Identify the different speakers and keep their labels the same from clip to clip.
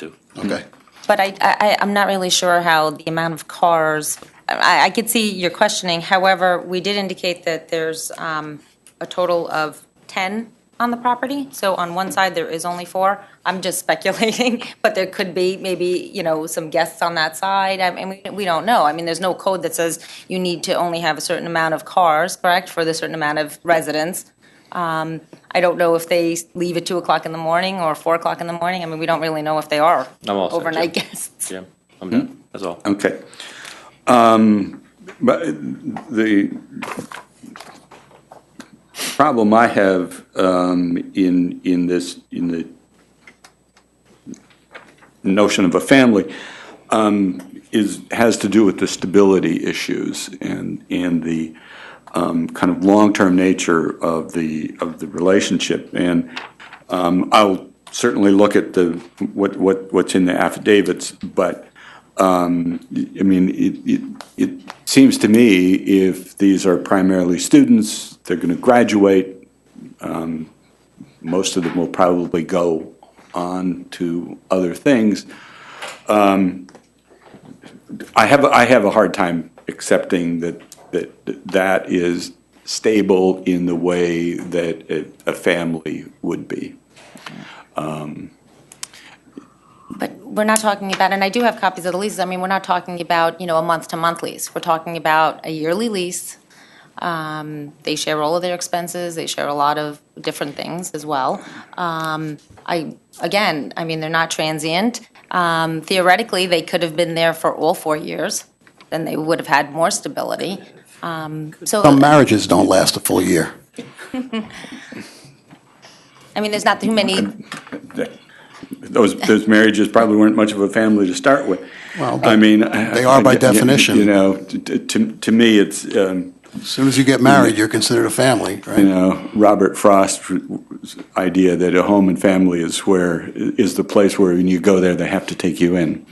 Speaker 1: too.
Speaker 2: Okay.
Speaker 3: But I, I, I'm not really sure how the amount of cars, I, I could see your questioning. However, we did indicate that there's um, a total of 10 on the property. So on one side, there is only four. I'm just speculating, but there could be maybe, you know, some guests on that side. I mean, we- we don't know. I mean, there's no code that says you need to only have a certain amount of cars, correct, for the certain amount of residents. Um, I don't know if they leave at 2 o'clock in the morning or 4 o'clock in the morning. I mean, we don't really know if they are
Speaker 1: I'm all set, Jim.
Speaker 3: overnight guests.
Speaker 1: Yeah, I'm done, that's all.
Speaker 2: Okay. Um, But the problem I have um, in, in this, in the notion of a family um, is, has to do with the stability issues and, and the um, kind of long-term nature of the, of the relationship. And um, I'll certainly look at the, what, what, what's in the affidavits, but I mean, it, it, it seems to me if these are primarily students, they're going to graduate. Um, most of them will probably go on to other things. Um, I have I have a hard time accepting that that that is stable in the way that a, a family would be.
Speaker 3: But we're not talking about, and I do have copies of the leases, I mean, we're not talking about, you know, a month-to-month lease. We're talking about a yearly lease. Um, They share all of their expenses, they share a lot of different things as well. Um, I, again, I mean, they're not transient. Um, Theoretically, they could have been there for all four years, then they would have had more stability. Um, So,
Speaker 4: Some marriages don't last a full year.
Speaker 3: I mean, there's not too many,
Speaker 2: That- Those those marriages probably weren't much of a family to start with.
Speaker 4: Well,
Speaker 2: I mean, I-
Speaker 4: They are by
Speaker 2: I-
Speaker 4: definition.
Speaker 2: You know, t- t- to, to me, it's, um,
Speaker 4: As soon as you get married, you're considered a family,
Speaker 2: you
Speaker 4: right?
Speaker 2: know, Robert Frost's idea that a home and family is where, is the place where when you go there, they have to take you in.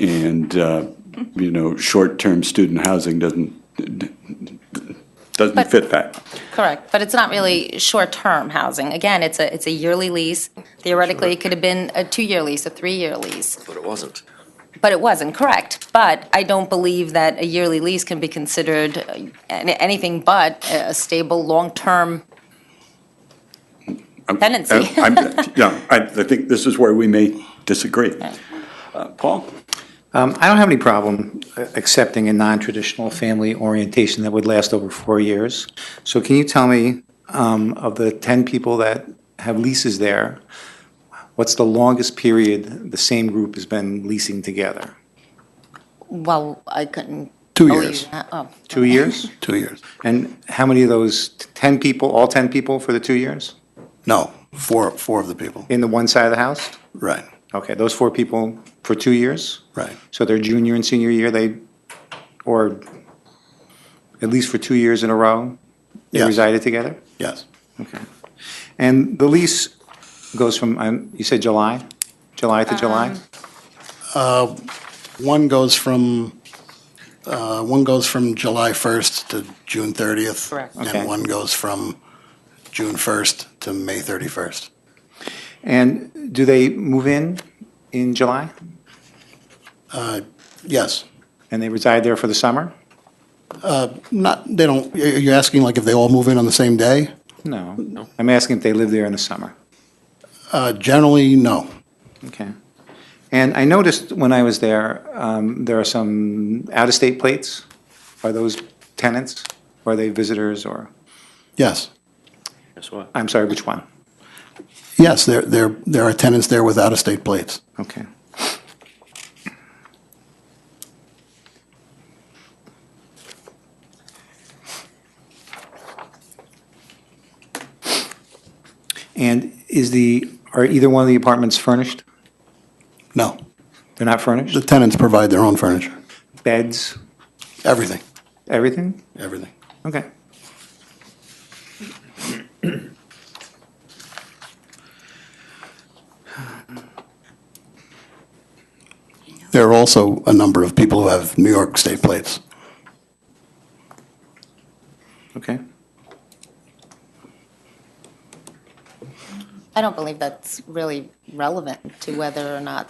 Speaker 2: And, uh, you know, short-term student housing doesn't, doesn't
Speaker 3: But-
Speaker 2: fit that.
Speaker 3: Correct, but it's not really short-term housing. Again, it's a, it's a yearly lease. Theoretically, it could have been a two-year lease, a three-year lease,
Speaker 1: But it wasn't.
Speaker 3: but it wasn't, correct. But I don't believe that a yearly lease can be considered uh, an- anything but a a stable, long-term
Speaker 2: Uh,
Speaker 3: tenancy.
Speaker 2: I'm- Yeah, I, I think this is where we may disagree. Uh, Paul?
Speaker 5: Um, I don't have any problem uh, accepting a non-traditional family orientation that would last over four years. So can you tell me, um, of the 10 people that have leases there, what's the longest period the same group has been leasing together?
Speaker 3: Well, I couldn't.
Speaker 4: Two
Speaker 3: believe
Speaker 4: years.
Speaker 3: that. Oh.
Speaker 5: Two years?
Speaker 4: Two years.
Speaker 5: And how many of those, t- 10 people, all 10 people for the two years?
Speaker 4: No, four, four of the people.
Speaker 5: In the one side of the house?
Speaker 4: Right,
Speaker 5: Okay, those four people for two years?
Speaker 4: right.
Speaker 5: So their junior and senior year, they, or at least for two years in a row, they
Speaker 4: Yes.
Speaker 5: resided together?
Speaker 4: Yes,
Speaker 5: Okay. And the lease goes from, um, you said July? July to July?
Speaker 4: one goes from, uh, one goes from July 1st to June 30th.
Speaker 3: Correct.
Speaker 5: Okay.
Speaker 4: And one goes from June 1st to May 31st.
Speaker 5: And do they move in in July?
Speaker 4: Yes,
Speaker 5: And they reside there for the summer?
Speaker 4: not, they don't, are you asking like if they all move in on the same day?
Speaker 5: No. I'm asking if they live there in the summer.
Speaker 4: Uh, Generally, no.
Speaker 5: Okay. And I noticed when I was there, um, there are some out-of-state plates. Are those tenants? Or are they visitors or,
Speaker 4: Yes,
Speaker 1: Guess what?
Speaker 5: I'm sorry, which one?
Speaker 4: yes, there, there, there are tenants there with out-of-state plates.
Speaker 5: Okay. And is the, are either one of the apartments furnished?
Speaker 4: No,
Speaker 5: They're not furnished?
Speaker 4: the tenants provide their own furniture,
Speaker 5: Beds,
Speaker 4: everything,
Speaker 5: everything?
Speaker 4: everything.
Speaker 5: Okay.
Speaker 4: There are also a number of people who have New York state plates.
Speaker 5: Okay.
Speaker 3: I don't believe that's really relevant to whether or not